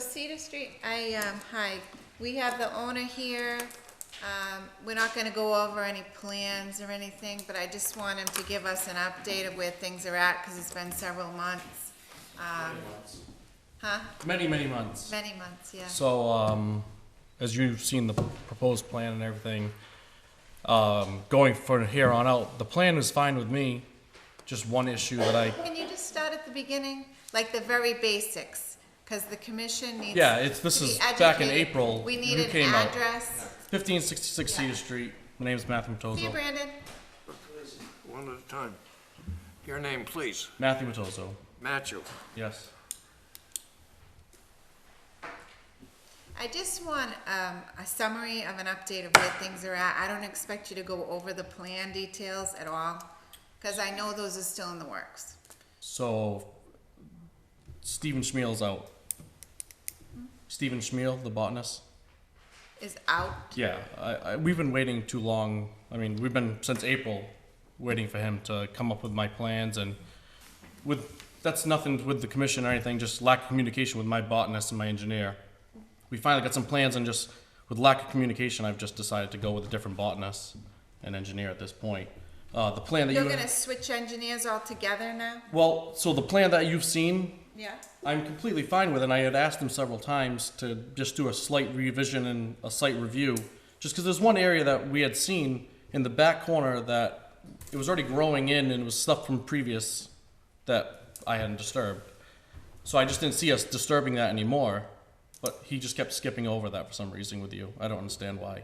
Cedar Street, I, um, hi, we have the owner here. Um, we're not gonna go over any plans or anything, but I just want him to give us an update of where things are at, cause it's been several months. Um, huh, Many, many months. many months, yeah. So, um, as you've seen the proposed plan and everything, um, going from here on out, the plan is fine with me. Just one issue that I, Can you just start at the beginning, like the very basics, cause the commission needs. yeah, it's, this to be is back in educated. April. We You need an came out. address. Fifteen sixty-six Yeah. Cedar Street. My name's Matthew See, Matozo. Brandon, One at a time. Your name, please. Matthew Matozo, Matthew. yes. I just want, um, a summary of an update of where things are at. I don't expect you to go over the plan details at all, cause I know those are still in the works. So, Stephen Schmeel's out. Stephen Schmeel, the botanist. Is out, Yeah, I, I, we've been waiting too long. I mean, we've been since April waiting for him to come up with my plans and with that's nothing with the commission or anything, just lack of communication with my botanist and my engineer. We finally got some plans and just with lack of communication, I've just decided to go with a different botanist and engineer at this point. Uh, the plan that you're you gonna switch engineers altogether now? well, so the plan that you've seen Yeah. I'm completely fine with it. And I had asked him several times to just do a slight revision and a slight review, just because there's one area that we had seen in the back corner that it was already growing in and it was stuff from previous that I hadn't disturbed. So I just didn't see us disturbing that anymore. But he just kept skipping over that for some reason with you. I don't understand why.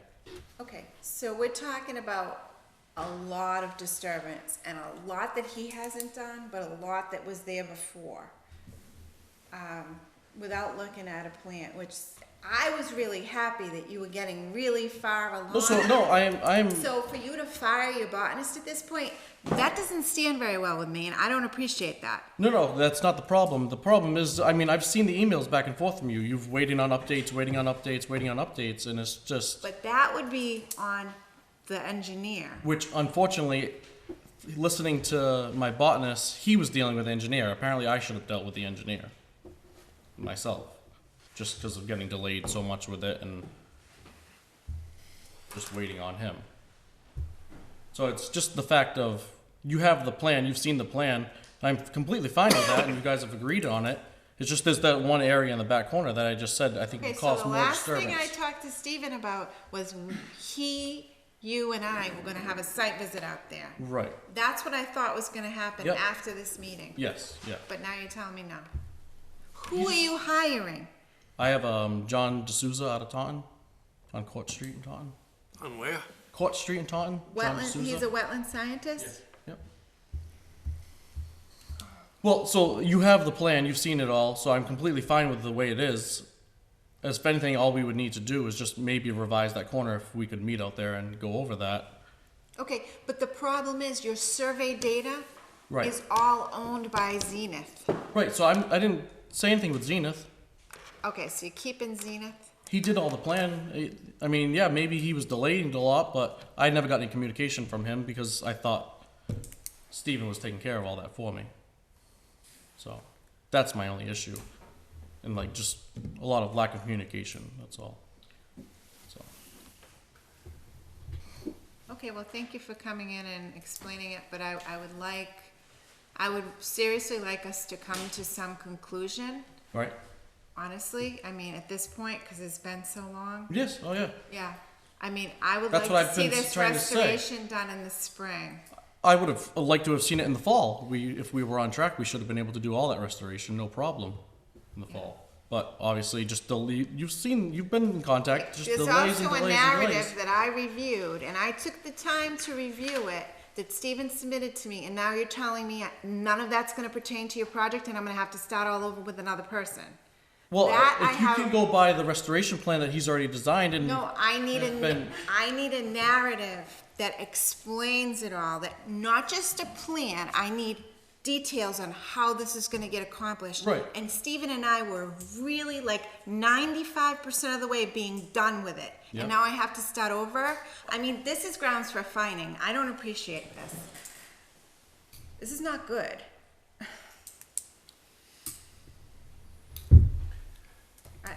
Okay, so we're talking about a lot of disturbance and a lot that he hasn't done, but a lot that was there before. Um, without looking at a plan, which I was really happy that you were getting really far along. No, so no, I am I am So for you to fire your botanist at this point, that doesn't stand very well with me, and I don't appreciate that. No, no, that's not the problem. The problem is, I mean, I've seen the emails back and forth from you. You've waiting on updates, waiting on updates, waiting on updates, and it's just, But that would be on the engineer. which unfortunately, listening to my botanist, he was dealing with the engineer. Apparently, I should have dealt with the engineer myself, just because of getting delayed so much with it and just waiting on him. So it's just the fact of you have the plan, you've seen the plan, and I'm completely fine with that, and you guys have agreed on it. It's just there's that one area in the back corner that I just said I think Okay, will so cause the more last thing disturbance. I talked to Steven about was he, you and I were gonna have a site visit out there. right. That's what I thought was gonna happen Yep. after this meeting, Yes. Yeah. but now you're telling me no. Who are you hiring? I have um, John D'Souza out of Taunton, on Court Street in Taunton. On where? Court Street in Taunton. John Wetland, D'Souza. he's a wetland scientist? Yep. Well, so you have the plan, you've seen it all, so I'm completely fine with the way it is. As if anything, all we would need to do is just maybe revise that corner if we could meet out there and go over that. Okay, but the problem is your survey data Right. is all owned by Zenith. Right. So I'm I didn't say anything with Zenith. Okay, so you're keeping Zenith? He did all the plan. It- I mean, yeah, maybe he was delaying it a lot, but I never got any communication from him because I thought Steven was taking care of all that for me. So that's my only issue. And like just a lot of lack of communication, that's all. So Okay, well, thank you for coming in and explaining it, but I, I would like, I would seriously like us to come to some conclusion, all right. honestly. I mean, at this point, because it's been so long. Yes, oh yeah. Yeah, I mean, I would That's like what to I've see been this trying to say. restoration done in the spring. I would have liked to have seen it in the fall. We if we were on track, we should have been able to do all that restoration, no problem in the fall. But obviously just delay you've seen you've been in contact, just There's delays also a and delays and delays. narrative that I reviewed, and I took the time to review it, that Steven submitted to me, and now you're telling me none of that's gonna pertain to your project, and I'm gonna have to start all over with another person. Well, That if I you can have- go by the restoration plan that he's already designed and No, I need There's a, been- I need a narrative that explains it all, that not just a plan, I need details on how this is gonna get accomplished. Right. And Stephen and I were really like ninety-five percent of the way being done with it. Yeah. And now I have to start over. I mean, this is grounds for fining. I don't appreciate this. This is not good.